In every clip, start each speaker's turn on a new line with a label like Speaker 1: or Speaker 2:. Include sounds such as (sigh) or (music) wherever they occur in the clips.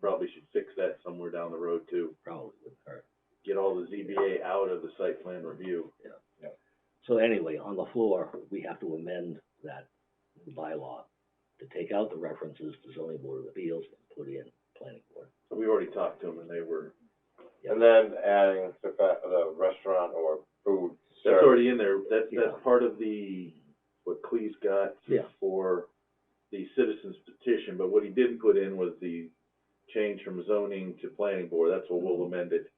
Speaker 1: probably should fix that somewhere down the road too.
Speaker 2: probably wouldn't hurt.
Speaker 1: Get all the ZBA out of the site plan review.
Speaker 2: So anyway, on the floor, we have to amend that bylaw to take out the references to zoning board of appeals and put in planning board.
Speaker 1: So we already talked to them and they were,
Speaker 3: And then adding the fa- the restaurant or food
Speaker 1: that's
Speaker 3: service.
Speaker 1: already in there. That's,
Speaker 2: Yeah.
Speaker 1: that's part of the, what Cleese got
Speaker 2: Yeah.
Speaker 1: for the citizens petition, but what he didn't put in was the change from zoning to planning board. That's what we'll amend it.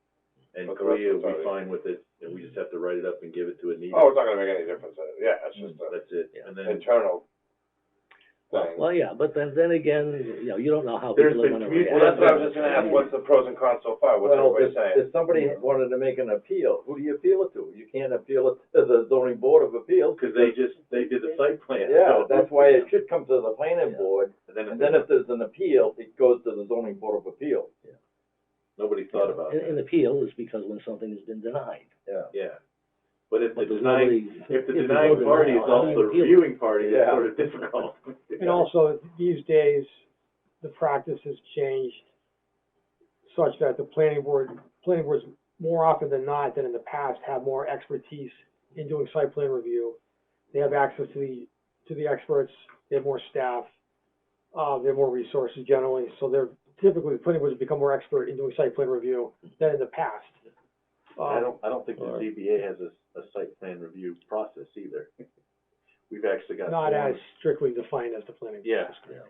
Speaker 1: And
Speaker 3: But the rest
Speaker 1: Clea will
Speaker 3: was already-
Speaker 1: be fine with it and we just have to write it up and give it to Anita.
Speaker 3: Oh, it's not gonna make any difference, uh, yeah, it's just a
Speaker 1: That's it.
Speaker 2: Yeah.
Speaker 1: And Mm-hmm. then
Speaker 3: internal thing.
Speaker 2: Well, yeah, but then, then again, you know, you don't know how
Speaker 1: There's
Speaker 2: people are
Speaker 1: been
Speaker 2: gonna
Speaker 1: commu-
Speaker 2: react.
Speaker 3: Well, that's what I was just gonna ask, what's the pros and cons so far, what's
Speaker 4: Well,
Speaker 3: everybody
Speaker 4: if,
Speaker 3: saying?
Speaker 4: if somebody wanted to make an appeal, who do you appeal it to? You can't appeal it to the zoning board of appeals.
Speaker 1: Cause they just, they did the site plan.
Speaker 4: Yeah,
Speaker 1: so-
Speaker 4: that's why it should come to the planning
Speaker 2: Yeah.
Speaker 4: board,
Speaker 1: And then,
Speaker 4: and then if there's an appeal, it goes to the zoning board of appeals.
Speaker 1: nobody thought about
Speaker 2: An, an
Speaker 1: that,
Speaker 2: appeal is because when something has been denied.
Speaker 4: Yeah.
Speaker 1: yeah. But if the
Speaker 2: But there's
Speaker 1: denying,
Speaker 2: nobody-
Speaker 1: if the
Speaker 2: there's
Speaker 1: denying
Speaker 2: no
Speaker 1: party is
Speaker 2: denial,
Speaker 1: also
Speaker 2: I
Speaker 1: the
Speaker 2: appeal.
Speaker 1: reviewing party, it's
Speaker 4: Yeah.
Speaker 1: sort of difficult. (laughs)
Speaker 5: And also, these days, the practice has changed such that the planning board, planning boards more often than not than in the past have more expertise in doing site plan review. They have access to the, to the experts, they have more staff, uh, they have more resources generally, so they're typically, the planning boards become more expert in doing site plan review than in the past.
Speaker 1: I
Speaker 5: Uh,
Speaker 1: don't, I don't think the ZBA has a, a site plan review process either. We've actually got.
Speaker 5: not as
Speaker 1: forms.
Speaker 5: strictly defined as the planning. board.
Speaker 1: Yeah,
Speaker 2: Yeah.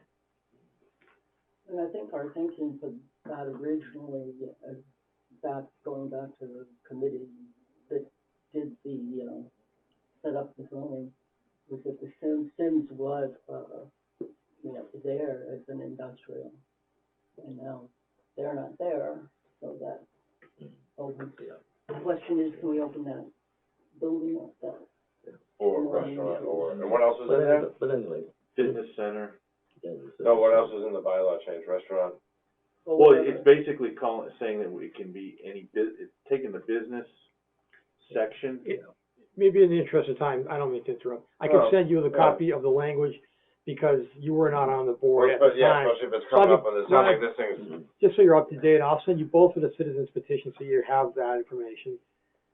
Speaker 6: And I think our thinking for that originally, uh, back, going back to the committee that did the, um, set up the zoning, was that the Sims, Sims was, uh, you know, there as an industrial. And now they're not there, so that opens. The question is, do we open that building up that?
Speaker 3: Or
Speaker 6: Well,
Speaker 3: restaurant,
Speaker 6: yeah.
Speaker 3: or, and what else is
Speaker 2: But
Speaker 3: in there?
Speaker 2: anyway, but anyway.
Speaker 1: fitness center.
Speaker 2: then it's-
Speaker 3: No, what else is in the bylaw change, restaurant?
Speaker 1: Well, it's basically calling, saying that it can be any bu, it's taking the business section.
Speaker 5: It- maybe in the interest of time, I don't mean to interrupt, I can
Speaker 3: Oh,
Speaker 5: send you the
Speaker 3: yeah.
Speaker 5: copy of the language, because you were not on the board at
Speaker 3: But,
Speaker 5: the
Speaker 3: yeah,
Speaker 5: time.
Speaker 3: especially if it's coming up on this, not like
Speaker 5: Probably-
Speaker 3: this thing's,
Speaker 5: Just so you're up to date, I'll send you both of the citizens petitions, so you have that information,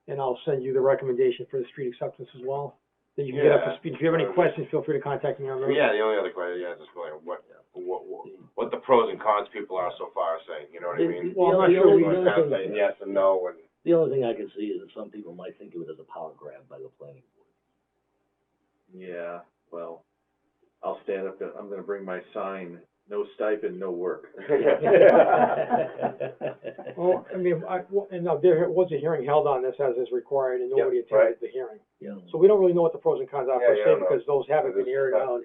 Speaker 5: and I'll send you the recommendation for the street acceptance as well, that you can get up
Speaker 3: Yeah.
Speaker 5: to speed, if you have any questions, feel free to contact me on those.
Speaker 3: yeah, the only other question, yeah, just going, what, what, what, what the pros and cons people are so far saying, you know what I
Speaker 2: The-
Speaker 3: mean?
Speaker 2: the-
Speaker 5: Well, I'm
Speaker 2: the
Speaker 5: not
Speaker 2: only-
Speaker 5: sure we
Speaker 2: the
Speaker 3: Like,
Speaker 2: only
Speaker 3: kinda
Speaker 2: thing-
Speaker 3: saying yes and no, and
Speaker 2: The only thing I can see is that some people might think of it as a power grab by the planning board.
Speaker 1: Yeah, well, I'll stand up, and I'm gonna bring my sign, no stipend, no work.
Speaker 2: (laughs)
Speaker 3: (laughs)
Speaker 5: Well, Oh, I mean, I, well, and now there was a hearing held on this as is required, and nobody attended
Speaker 3: right.
Speaker 5: the hearing.
Speaker 2: Yeah.
Speaker 5: So we don't really know what the pros and cons are
Speaker 3: Yeah, yeah, I
Speaker 5: per se,
Speaker 3: don't know.
Speaker 5: because those haven't been aired
Speaker 2: uh,
Speaker 3: Yeah.
Speaker 5: out.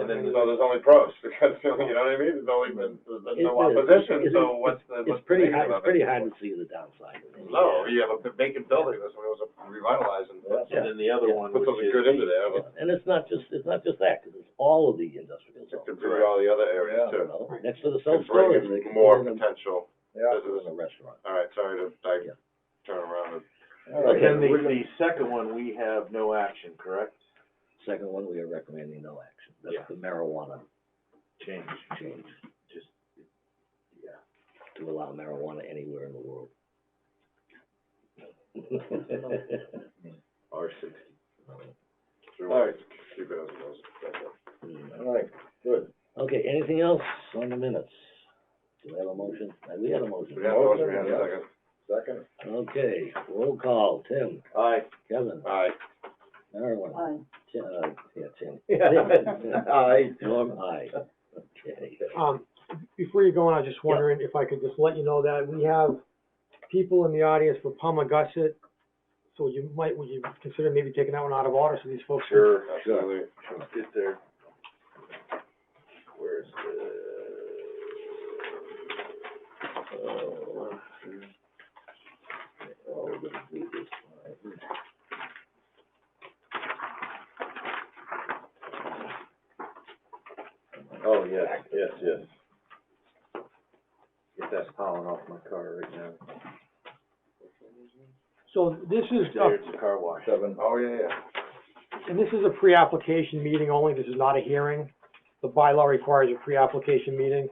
Speaker 3: And then, so there's only pros, (laughs) because, you know what I mean, there's only been, there's been no
Speaker 2: It- it-
Speaker 3: opposition,
Speaker 2: it-
Speaker 3: so what's the,
Speaker 2: It's
Speaker 3: what's the
Speaker 2: pretty hard,
Speaker 3: negative of
Speaker 2: it's
Speaker 3: it?
Speaker 2: pretty hard to see the downside. of it.
Speaker 3: No, you have a vacant building, that's what it was revitalizing,
Speaker 1: And then the other
Speaker 2: Yeah.
Speaker 1: one,
Speaker 3: put
Speaker 1: which is
Speaker 3: something good into there,
Speaker 2: Yeah,
Speaker 3: but
Speaker 2: And it's not just, it's not just that, 'cause it's all of the industrial
Speaker 3: it
Speaker 2: zones,
Speaker 3: could be all the other areas
Speaker 2: you
Speaker 3: too.
Speaker 2: know, next to the
Speaker 3: Could
Speaker 2: self-storage, they
Speaker 3: bring
Speaker 2: could
Speaker 3: in more
Speaker 2: put in a,
Speaker 3: potential
Speaker 4: Yeah.
Speaker 2: put in
Speaker 3: business,
Speaker 2: a restaurant.
Speaker 3: all right, sorry to, like,
Speaker 2: Yeah.
Speaker 3: turn around and.
Speaker 1: But
Speaker 2: Okay.
Speaker 1: then the, the second one, we have no action, correct?
Speaker 2: Second one, we are recommending no action,
Speaker 1: Yeah.
Speaker 2: that's the marijuana
Speaker 1: Change,
Speaker 2: change,
Speaker 1: just, yeah.
Speaker 2: to allow marijuana anywhere in the world.
Speaker 1: R sixty.
Speaker 3: All
Speaker 1: right.
Speaker 3: Keep it as it was.
Speaker 4: All right, good.
Speaker 2: Okay, anything else on the minutes? Do we have a motion? Uh, We had a motion.
Speaker 3: We had a motion, we had a second.
Speaker 4: Second.
Speaker 2: Okay, roll call, Tim,
Speaker 1: Aye.
Speaker 2: Kevin,
Speaker 3: Aye.
Speaker 2: Marilyn,
Speaker 6: Aye.
Speaker 2: Ti- uh, yeah,
Speaker 3: (laughs)
Speaker 2: Tim.
Speaker 5: (laughs)
Speaker 4: Aye.
Speaker 2: Norm, aye. Okay.
Speaker 5: Um, before you go on, I was just wondering if I could just let you know that we have people in the audience for Palmagussit. So you might, would you consider maybe taking that one out of order so these folks? are
Speaker 1: Sure,
Speaker 3: Absolutely.
Speaker 1: let's get there. Where's the?
Speaker 2: Oh, we're gonna do this one.
Speaker 1: Oh, yes, yes, yes. Get that pollen off my car right now.
Speaker 5: So this is,
Speaker 1: There,
Speaker 5: a-
Speaker 1: it's a car wash.
Speaker 4: Seven.
Speaker 3: Oh, yeah, yeah.
Speaker 5: and this is a pre-application meeting only, this is not a hearing. The bylaw requires a pre-application meeting.